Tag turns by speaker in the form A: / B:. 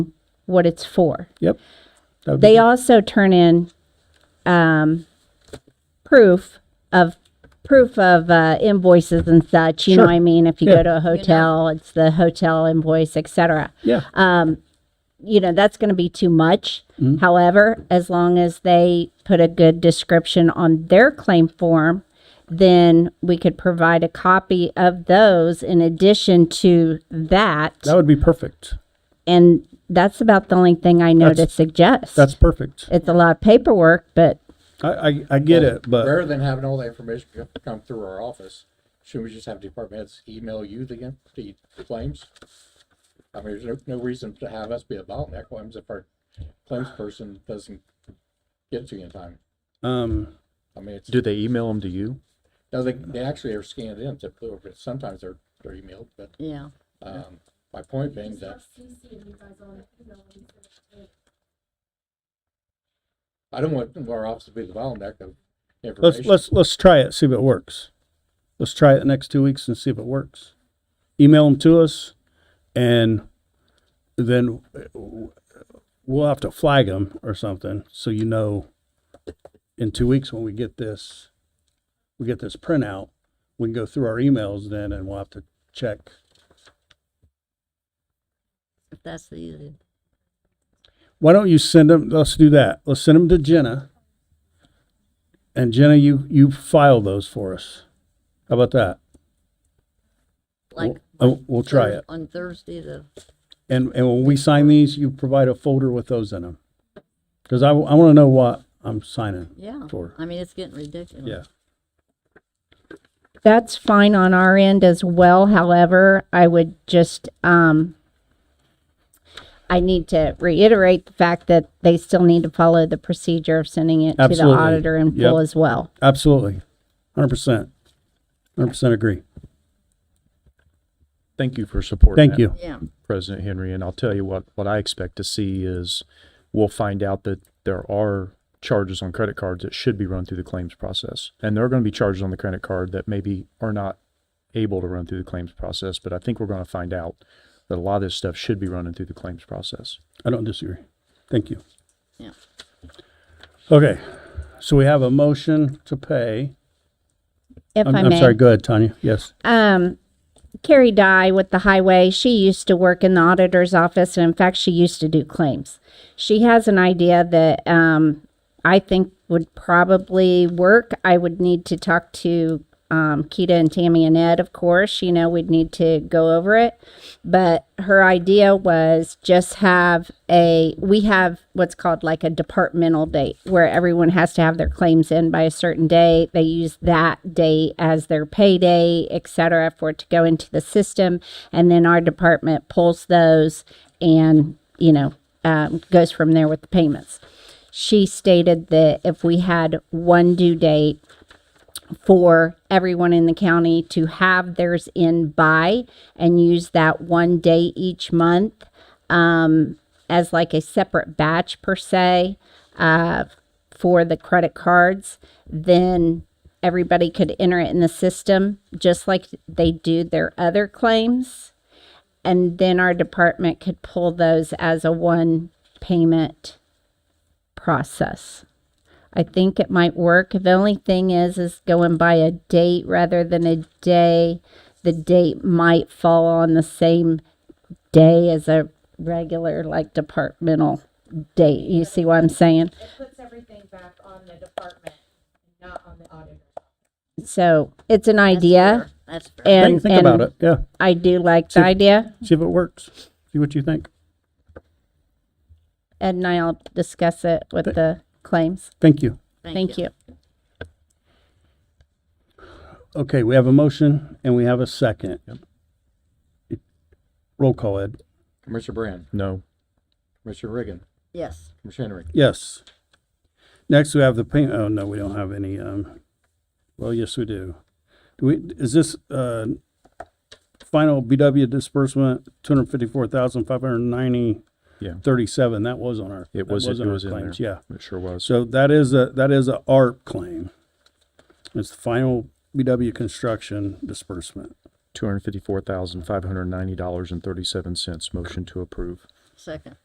A: what it's for.
B: Yep. That would be
A: They
B: good.
A: also turn in um, proof of proof of uh, invoices and such. You know
B: Sure.
A: what I mean? If you
B: Yeah.
A: go to a hotel, it's the hotel invoice, etc.
B: Yeah.
A: You know that's going to be too much.
B: Mm-hmm.
A: However, as long as they put a good description on their claim form, then we could provide a copy of those in addition to that.
B: that would be perfect.
A: and that's about the only thing I know to
B: That's-
A: suggest.
B: That's perfect.
A: it's a lot of paperwork, but
B: I, I, I get it, but
C: Rather than having all the information co- come through our office, should we just have department heads email you the, in- the claims? I mean, there's no, no reason to have us be a bottleneck claims if our claims person doesn't get to you in time.
B: um,
C: I mean, it's,
D: Do they email them to you?
C: no, they, they actually are scanned in typically, or sometimes they're, they're emailed, but,
E: Yeah.
C: um, my point being that I don't want our office to be the bottleneck of
B: let's
C: information.
B: let's let's try it. See if it works. Let's try it the next two weeks and see if it works. Email them to us, and then we'll have to flag them or something so you know. In two weeks, when we get this, we get this printout. We can go through our emails then, and we'll have to check.
E: If that's the easy.
B: Why don't you send them? Let's do that. Let's send them to Jenna. And Jenna, you you file those for us. How about that?
E: Like.
B: We'll, oh, we'll try it.
E: On Thursday, the,
B: And and when we sign these, you provide a folder with those in them. Because I, want to know what I'm signing.
E: yeah.
B: Sure.
E: I mean, it's getting ridiculous.
B: Yeah.
A: That's fine on our end as well. However, I would just, um, I need to reiterate the fact that they still need to follow the procedure of sending it to
B: Absolutely.
A: the auditor in full
B: Yep.
A: as well.
B: Absolutely. 100%. 100% agree.
D: Thank you for supporting.
B: Thank
D: that,
B: you.
E: Yeah.
D: President Henry. And I'll tell you what, what I expect to see is we'll find out that there are charges on credit cards that should be run through the claims process. And there are going to be charges on the credit card that maybe are not able to run through the claims process. But I think we're going to find out that a lot of this stuff should be running through the claims process.
B: I don't disagree. Thank you.
E: Yeah.
B: Okay. So we have a motion to pay.
A: If
B: I'm,
A: I
B: I'm
A: may.
B: sorry. Go ahead, Tanya. Yes.
A: um, Carrie Dye with the highway, she used to work in the auditor's office, and in fact, she used to do claims. She has an idea that um, I think would probably work. I would need to talk to um, Keita and Tammy and Ed, of course. You know, we'd need to go over it. But her idea was just have a, we have what's called like a departmental date where everyone has to have their claims in by a certain date. They use that date as their payday, et cetera, for it to go into the system. And then our department pulls those and, you know, um, goes from there with the payments. She stated that if we had one due date, for everyone in the county to have theirs in by and use that one day each month um, as like a separate batch per se uh, for the credit cards, then everybody could enter it in the system just like they do their other claims. And then our department could pull those as a one payment process. I think it might work. The only thing is, is going by a date rather than a day. The date might fall on the same day as a regular, like departmental date. You see what I'm saying?
F: It puts everything back on the department, not on the auditor.
A: So it's an
E: That's
A: idea,
E: fair. That's fair.
A: and
B: think think
A: and
B: about it. Yeah.
A: I do like the
B: See-
A: idea,
B: See if it works. See what you think.
A: Ed and I'll discuss it with
B: Th-
A: the claims.
B: Thank you.
A: Thank you.
B: Okay, we have a motion and we have a second. Roll call, Ed.
C: Commissioner Brand,
D: No.
C: Commissioner Reagan,
E: Yes.
C: Commissioner Henry.
B: Yes. Next, we have the pay, oh, no, we don't have any, um, well, yes, we do. Do we, is this, uh, final BW disbursement, two hundred fifty-four thousand, five hundred ninety,
D: Yeah.
B: thirty-seven, that was on our. that
D: It was, it
B: on our
D: was in there.
B: claims, Yeah.
D: It sure was.
B: So that is a, that is a ARP claim. It's the final BW construction disbursement.
D: $254,590.37. Motion to approve.
E: Second.